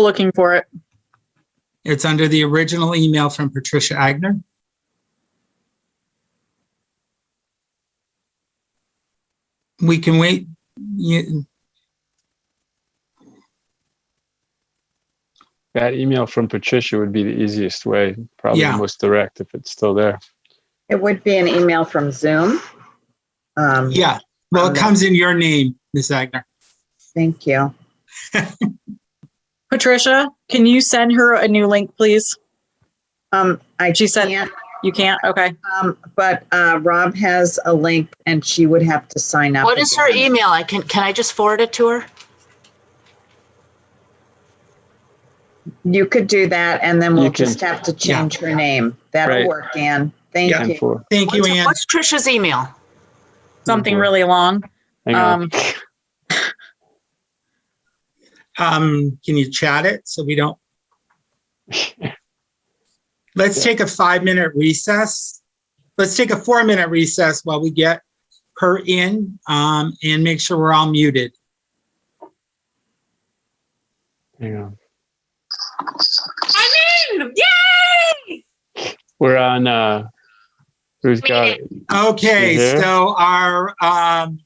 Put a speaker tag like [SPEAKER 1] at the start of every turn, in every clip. [SPEAKER 1] looking for it.
[SPEAKER 2] It's under the original email from Patricia Agner. We can wait. You-
[SPEAKER 3] That email from Patricia would be the easiest way, probably
[SPEAKER 2] Yeah.
[SPEAKER 3] the most direct if it's still there.
[SPEAKER 4] It would be an email from Zoom. Um,
[SPEAKER 2] Yeah, well, it comes in your name, Ms. Agner.
[SPEAKER 4] Thank you.
[SPEAKER 1] Patricia, can you send her a new link, please?
[SPEAKER 4] Um, I
[SPEAKER 1] She said-
[SPEAKER 4] can't,
[SPEAKER 1] You can't? Okay.
[SPEAKER 4] um, but, uh, Rob has a link and she would have to sign up.
[SPEAKER 5] What is her
[SPEAKER 4] again.
[SPEAKER 5] email? I can, can I just forward it to her?
[SPEAKER 4] You could do that and then we'll
[SPEAKER 3] You can-
[SPEAKER 4] just have to change her name. That'll
[SPEAKER 3] Right.
[SPEAKER 4] work, Dan. Thank
[SPEAKER 3] And
[SPEAKER 4] you.
[SPEAKER 3] for,
[SPEAKER 2] Thank you,
[SPEAKER 5] What's
[SPEAKER 2] Ann.
[SPEAKER 5] what's Trisha's email?
[SPEAKER 1] Something really long.
[SPEAKER 3] hang on.
[SPEAKER 1] Um,
[SPEAKER 2] Um, can you chat it so we don't? Let's take a five-minute recess. Let's take a four-minute recess while we get her in, um, and make sure we're all muted.
[SPEAKER 3] Hang on.
[SPEAKER 6] I'm in! Yay!
[SPEAKER 3] We're on, uh, who's got,
[SPEAKER 2] Okay,
[SPEAKER 3] Mhm.
[SPEAKER 2] so our um,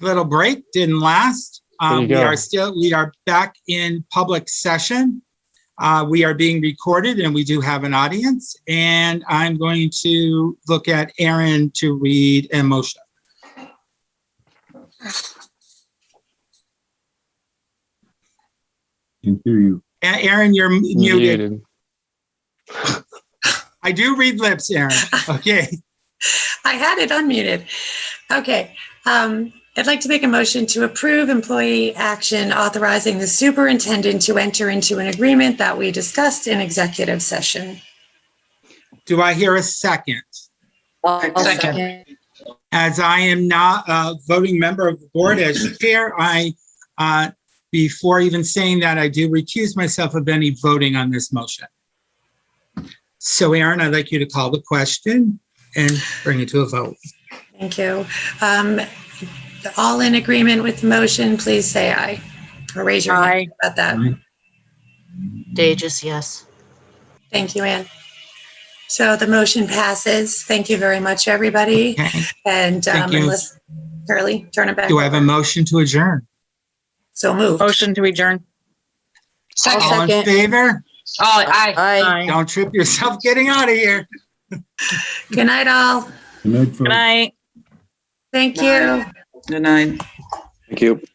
[SPEAKER 2] little break didn't last.
[SPEAKER 3] you
[SPEAKER 2] Um, we
[SPEAKER 3] go.
[SPEAKER 2] are still, we are back in public session. Uh, we are being recorded and we do have an audience. And I'm going to look at Aaron to read a motion.
[SPEAKER 7] Can hear you.
[SPEAKER 2] A- Aaron, you're m- muted.
[SPEAKER 3] muted?
[SPEAKER 2] I do read lips, Aaron. Okay,
[SPEAKER 6] I had it unmuted. Okay. Um, I'd like to make a motion to approve employee action authorizing the superintendent to enter into an agreement that we discussed in executive session.
[SPEAKER 2] do I hear a second? As I am not a voting member of the board as chair, I, uh, before even saying that, I do recuse myself of any voting on this motion. So Aaron, I'd like you to call the question and bring it to a vote.
[SPEAKER 6] Thank you. Um, all in agreement with the motion, please say aye. Or raise your hand
[SPEAKER 1] Hi.
[SPEAKER 6] about that.
[SPEAKER 2] Mm-hmm.
[SPEAKER 5] Dages, yes.
[SPEAKER 6] Thank you, Ann. So the motion passes. Thank you very much, everybody.
[SPEAKER 2] Okay,
[SPEAKER 6] And
[SPEAKER 2] Thank
[SPEAKER 6] um,
[SPEAKER 2] you.
[SPEAKER 6] unless, Curly, turn it back.
[SPEAKER 2] do I have a
[SPEAKER 6] over.
[SPEAKER 2] motion to adjourn?
[SPEAKER 6] So moved.
[SPEAKER 1] Motion to adjourn.
[SPEAKER 2] All in favor?
[SPEAKER 1] Aye.
[SPEAKER 2] Don't trip yourself getting out of here.
[SPEAKER 6] Good night, all.
[SPEAKER 7] Good night, folks.
[SPEAKER 1] Good night.
[SPEAKER 6] Thank you.
[SPEAKER 8] Good night.
[SPEAKER 9] Thank you.